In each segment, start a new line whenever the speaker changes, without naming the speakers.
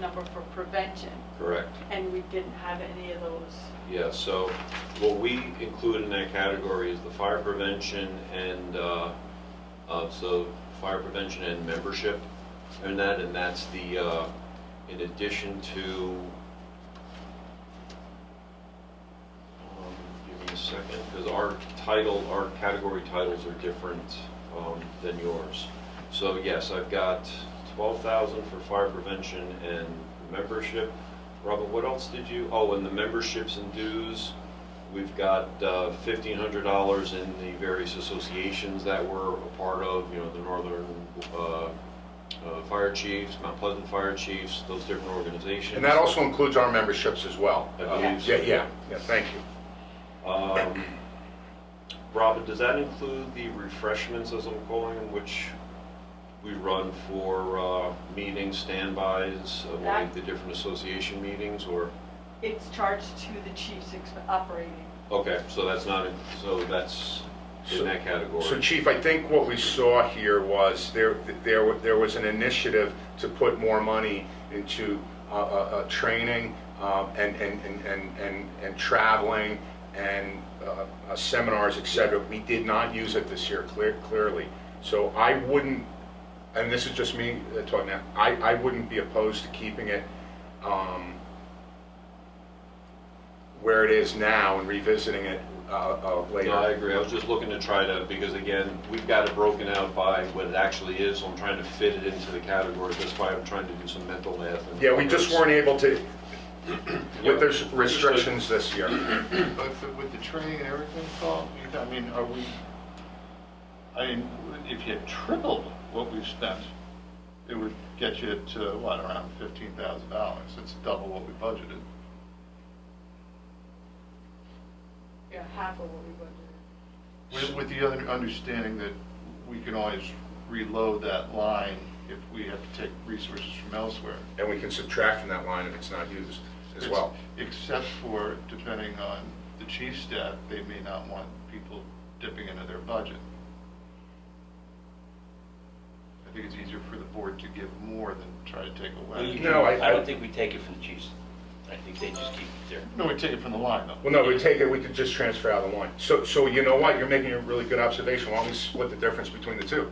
number for prevention,
Correct.
and we didn't have any of those.
Yeah, so what we include in that category is the fire prevention and, uh, uh, so fire prevention and membership and that, and that's the, uh, in addition to, um, give me a second, because our title, our category titles are different um, than yours. So yes, I've got 12,000 for fire prevention and membership. Robert, what else did you, oh, and the memberships and dues, we've got uh, $1,500 in the various associations that we're a part of, you know, the Northern uh, uh, Fire Chiefs, Mount Pleasant Fire Chiefs, those different organizations.
And that also includes our memberships as well.
I believe so.
Yeah, yeah, yeah, thank you.
Um, Robin, does that include the refreshments, as I'm calling them, which we run for uh, meetings, standbys, uh, like the different association meetings, or?
It's charged to the chief's exp- operating.
Okay, so that's not, in- so that's in that
So
category?
Chief, I think what we saw here was there, there, wa- there was an initiative to put more money into, uh, uh, uh, training, um, and, and, and, and, and, and traveling and, uh, uh, seminars, et cetera. We did not use it this year, clear, clearly. So I wouldn't, and this is just me uh, talking now, I, I wouldn't be opposed to keeping it, um, where it is now and revisiting it, uh, uh, later.
No, I agree, I was just looking to try to, because again, we've got it broken out by what it actually is, so I'm trying to fit it into the categories, that's why I'm trying to do some mental math. and-
Yeah, we just weren't able to,
Yeah.
with those restrictions this year.
But for- with the training and everything, Paul, you- I mean, are we, I mean, if you tripled what we've spent, it would get you to, what, around fifteen thousand dollars? It's double what we budgeted.
Yeah, half of what we budgeted.
With, with the other understanding that we can always reload that line if we have to take resources from elsewhere.
And we can subtract from that line if it's not used as well.
Except for, depending on the chief's staff, they may not want people dipping into their budget. I think it's easier for the board to give more than try to take away.
No, I-
I don't think we take it from the chiefs. I think they just keep it there.
No, we take it from the line, though.
Well, no, we take it, we could just transfer out of the line. So, so you know what, you're making a really good observation, why don't we split the difference between the two?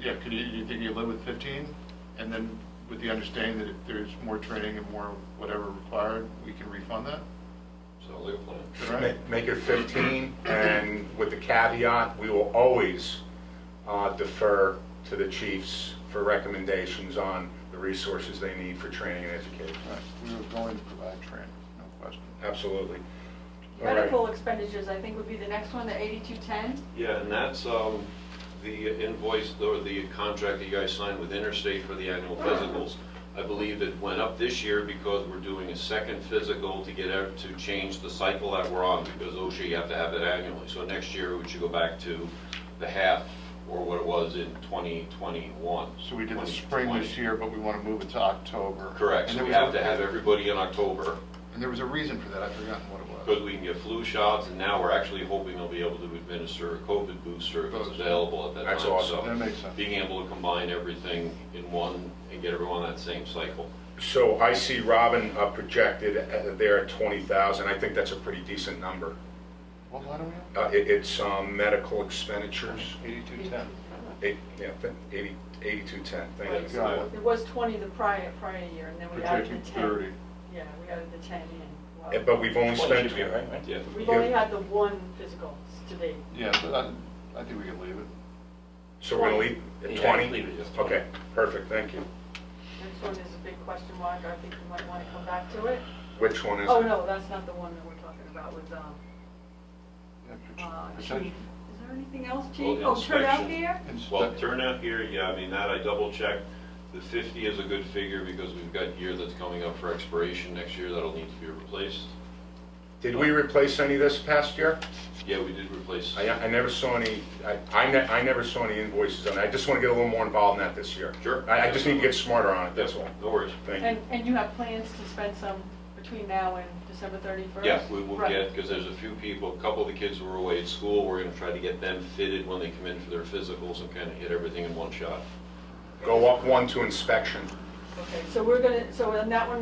Yeah, could you, you think you live with fifteen, and then with the understanding that if there's more training and more whatever required, we can refund that?
Sounds like a plan.
Is that right?
Ma- Make it 15, and with the caveat, we will always uh, defer to the chiefs for recommendations on the resources they need for training and education.
Right, We were going to provide training, no question.
Absolutely. All right.
Medical expenditures, I think, would be the next one, the eighty-two ten.
Yeah, and that's um, the invoice or the contract that you guys signed with Interstate for the annual physicals. I believe it went up this year because we're doing a second physical to get, out- to change the cycle that we're on because OSHA, you have to have it annually. So next year, we should go back to the half or what it was in 2021.
So we did the spring this
2020.
year, but we want to move it to October.
Correct, so
And there
we
was
have
a-
to have everybody in October
And there was a reason for that, I've forgotten what it was.
because we can get flu shots and now we're actually hoping they'll be able to administer a COVID booster if it's
Booster.
available at that time.
That's awesome.
So-
That makes sense.
being able to combine everything in one and get everyone on that same cycle.
So I see Robin uh, projected uh, there at 20,000. I think that's a pretty decent number.
What line are we on?
Uh, it- It's um, medical expenditures,
Eighty-two ten.
eight- yeah, th- 80 8210, thank you.
Right. Got it.
It was twenty the prior, prior year, and then we added
Projecting
the ten.
thirty.
Yeah, we added the ten
Uh,
in. Wow.
But we've only
Well, it
spent,
should be all right, right?
Yeah.
We've only had the one physical to date.
Yeah, but I, I think we can leave it.
so we're going to leave
Yeah,
at
leave
20?
it as 20.
Okay, perfect, thank you.
Next one is a big question mark, I think we might want to come back to it.
Which one is it?
Oh, no, that's not the one that we're talking about with, um,
Yeah, prot-
uh,
protect-
chief. Is there anything else,
Well,
chief?
the
Oh, turnout
inspection.
gear?
Well,
inspect-
turnout here, yeah, I mean, that I double checked. The 50 is a good figure because we've got year that's coming up for expiration next year that'll need to be replaced.
Did we replace any this past year?
Yeah, we did replace.
I I never saw any, I- I ne- I never saw any invoices on it. I just want to get a little more involved in that this year.
Sure.
I I just need to get smarter on it, that's all.
No worries.
Thank you.
And, and you have plans to spend some between now and December 31st?
Yeah, we will
Right.
get, because there's a few people, a couple of the kids who were away at school, we're going to try to get them fitted when they come in for their physicals and kind of hit everything in one shot.
Go up one to inspection.
Okay, so we're gonna, so on that one,